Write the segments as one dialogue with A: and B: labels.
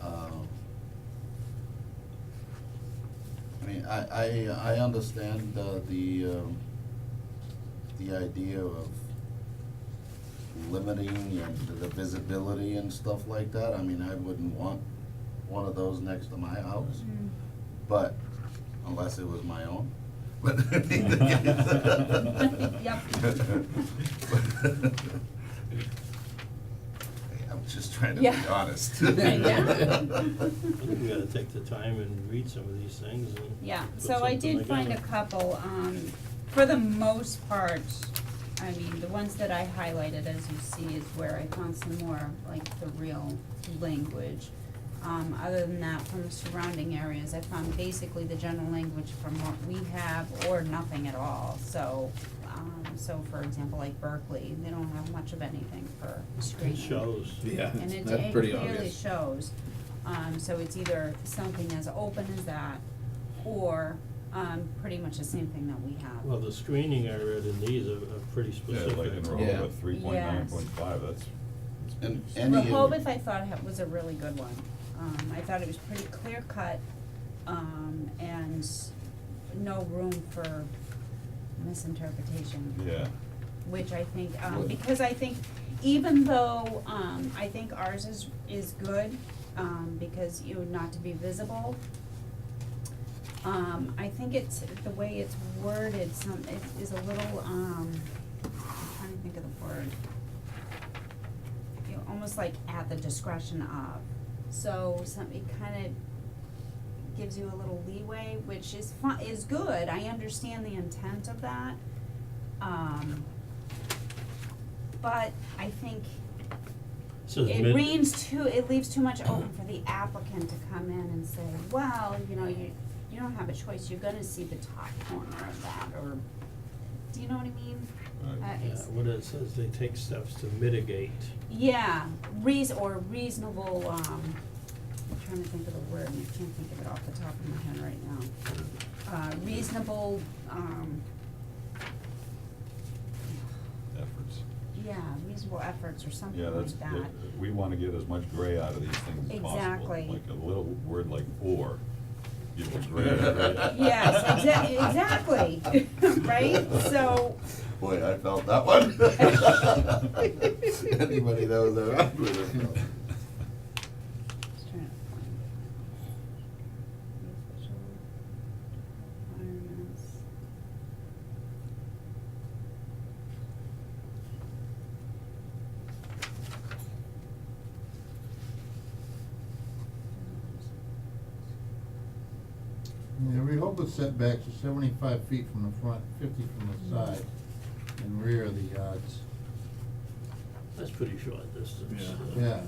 A: Um, mean, I, I, I understand uh, the, um, the idea of limiting and the visibility and stuff like that. I mean, I wouldn't want one of those next to my house, but, unless it was my own. But in either case-
B: Yep.
A: Hey, I'm just trying to be
B: Yeah.
A: honest.
B: Right,
C: I think we gotta take the time and read some of these things and.
B: Yeah,
C: put
B: so I
C: something
B: did
C: together.
B: find a couple, um, for the most part, I mean, the ones that I highlighted, as you see, is where I found some more, like, the real language. Um, other than that, from the surrounding areas, I found basically the general language from what we have or nothing at all, so, um, so for example, like Berkeley, they don't have much of anything for screening.
C: It shows.
D: Yeah,
B: And it,
D: that's
B: it
D: pretty
B: clearly
D: obvious.
B: shows, um, so it's either something as open as that, or, um, pretty much the same thing that we
C: Well,
B: have.
C: the screening I read in these are, are pretty
E: Yeah,
C: specific.
E: like in
D: Yeah.
E: Rehoboth, three point nine point five, that's.
A: And
E: that's-
A: any. of-
B: Rehoboth, I thought ha- was a really good one, um, I thought it was pretty clear cut, um, and no room for misinterpretation.
E: Yeah,
B: which I think, um,
A: Would.
B: because I think even though, um, I think ours is, is good, um, because you, not to be visible. Um, I think it's, the way it's worded, some, it is a little, um, I'm trying to think of the word. You know, almost like at the discretion of, so some, it kind of gives you a little leeway, which is fun, is good, I understand the intent of that. Um, but I think
C: Says
B: it
C: mid-
B: leaves too, it leaves too much open for the applicant to come in and say, well, you know, you, you don't have a choice, you're gonna see the top corner of that, or, do you know what I mean?
E: Right.
B: Uh,
C: Yeah,
B: it's-
C: what it says, they take steps to mitigate.
B: yeah, reas- or reasonable, um, I'm trying to think of the word, and I can't think of it off the top of my head right now. Uh, reasonable, um,
E: efforts.
B: yeah, reasonable efforts or something
E: Yeah,
B: like
E: that's,
B: that.
E: it- we wanna get as much gray out of these things as possible.
B: Exactly.
E: Like a little word like or, give it gray. right?
B: Yes, exa- exactly, right? So,
A: Boy, I felt that one. Anybody that was around would have felt.
B: just trying to find the official requirements.
F: Yeah, Rehoboth setbacks are seventy-five feet from the front, fifty from the side and rear of the yards.
C: That's pretty short distance. uh,
D: Yeah.
F: Yeah,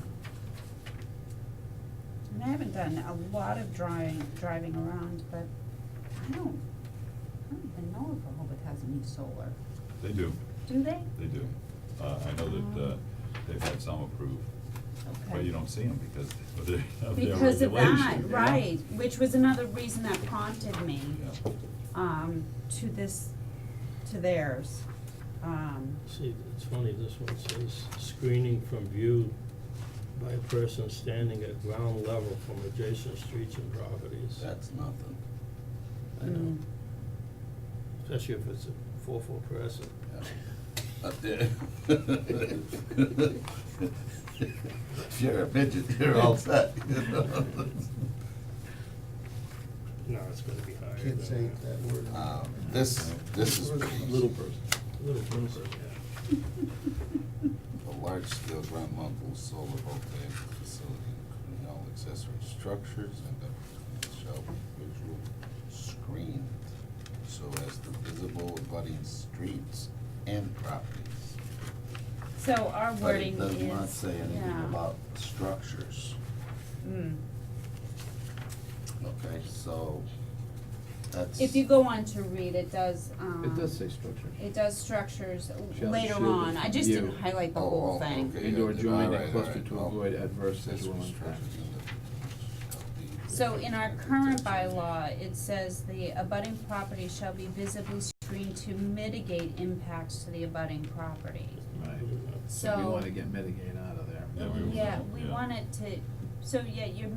B: And I haven't done a lot of driving, driving around, but I don't, I don't even know if Rehoboth has any solar.
E: They do,
B: Do they?
E: they do. Uh, I know that, uh, they've had some approved, but
B: Um, Okay.
E: you don't see them because of their, of their
B: Because of that,
E: regulation.
B: right, which was another reason that prompted me,
E: Yeah.
B: um, to this, to theirs. Um,
C: See, it's funny, this one says screening from view by a person standing at ground level from adjacent streets and properties.
A: That's nothing.
C: I know,
B: mm,
C: especially if it's a four-four person.
A: Up there. If you're a midget, you're all set. you know?
C: No, it's gonna be higher than
F: can't
C: that.
F: say that word.
A: Um, This, this is
D: Little person.
C: Little person, yeah.
A: a large-scale ground mount solar voltaic facility, including all accessory structures and everything shall be visual screened so as to visible abutting streets and properties.
B: So our
A: But it
B: wording is,
A: does not say anything
B: yeah,
A: about structures.
B: mm.
A: Okay, so that's.
B: If you go on to read, it does, um.
D: It does say structure.
B: It does structures
D: Shall
B: later
D: shield
B: on,
D: it
B: I
D: from
B: just didn't
D: view.
B: highlight the
A: Oh,
B: whole
A: oh,
B: thing.
A: okay,
D: Indoor
A: yeah,
D: joint
A: alright,
D: and cluster
A: alright,
D: to
A: oh.
D: avoid adverse
A: Accessory
D: visual impact.
A: structures in the-
B: So in our current bylaw, it says the abutting property shall be visibly screened to mitigate impacts to the abutting property.
D: Right.
C: Good enough.
D: So we
B: So,
D: wanna get mitigate out of there.
E: Yeah, we-
B: yeah, we
E: yeah.
B: want it to, so yeah, you're